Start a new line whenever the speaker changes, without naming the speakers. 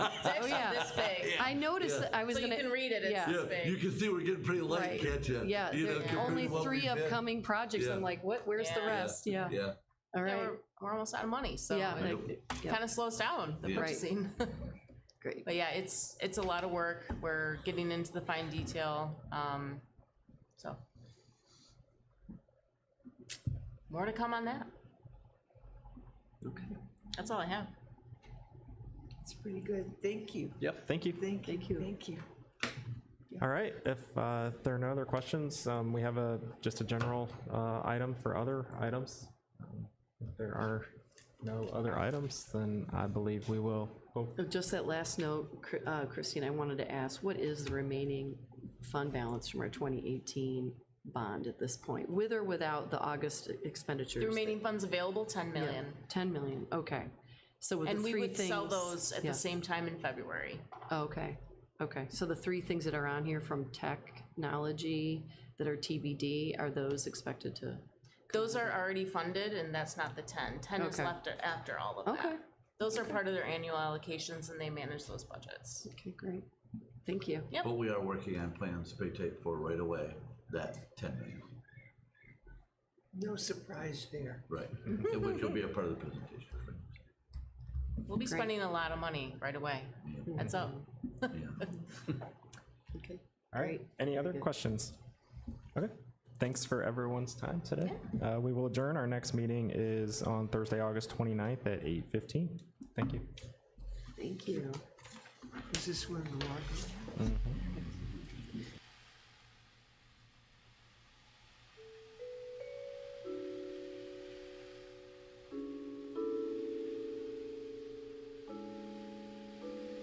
Oh,
I noticed,
Yeah.
that I was
So you
gonna.
can read it, it's
yeah.
this
Yeah, you
big.
can see we're getting pretty late,
Right.
can't you?
Yeah,
You know,
there-
compared to
only
what
three
we've been.
upcoming projects.
Yeah.
I'm like, what, where's the
Yeah.
rest? Yeah,
Yeah.
all
Yeah,
right,
we're, we're almost out of money, so
yeah,
I
it
don't-
yeah.
kind of slows down the
Yeah. Right.
purchasing.
great.
But yeah, it's, it's a lot of work. We're getting into the fine detail, um, so. More to come on that.
Okay.
That's all I have.
It's pretty good. Thank you.
Yep, thank you.
Thank you. Thank you. Thank you.
All right, if uh, there are no other questions, um, we have a, just a general uh, item for other items. Um, If there are no other items, then I believe we will, oh,
Oh, Just that last note, Chr- uh, Christine, I wanted to ask, what is the remaining fund balance from our 2018 bond at this point, with or without the August expenditures?
The remaining funds available, ten
Yeah,
million.
10 million, okay. So with the
And we
three
would
things.
sell those at
yeah.
the same time in February.
Okay, okay. So the three things that are on here from technology that are TBD, are those expected to?
Those are already funded and that's not the ten. Ten is
Okay.
left a- after all of
Okay.
that. Those are part of their annual allocations and they manage those budgets.
Okay, great. Thank you.
Yep.
But we are working on plans to take for right away, that ten million,
No surprise there.
right? And which will be a part of the presentation. right?
We'll be
Great.
spending a lot of money right away. That's up.
Yeah.
Okay.
all right, any other questions? Okay, thanks for everyone's time today. Uh, We will adjourn, our next meeting is on Thursday, August 29th at 8:15. Thank you.
Thank you.
Is this where the water?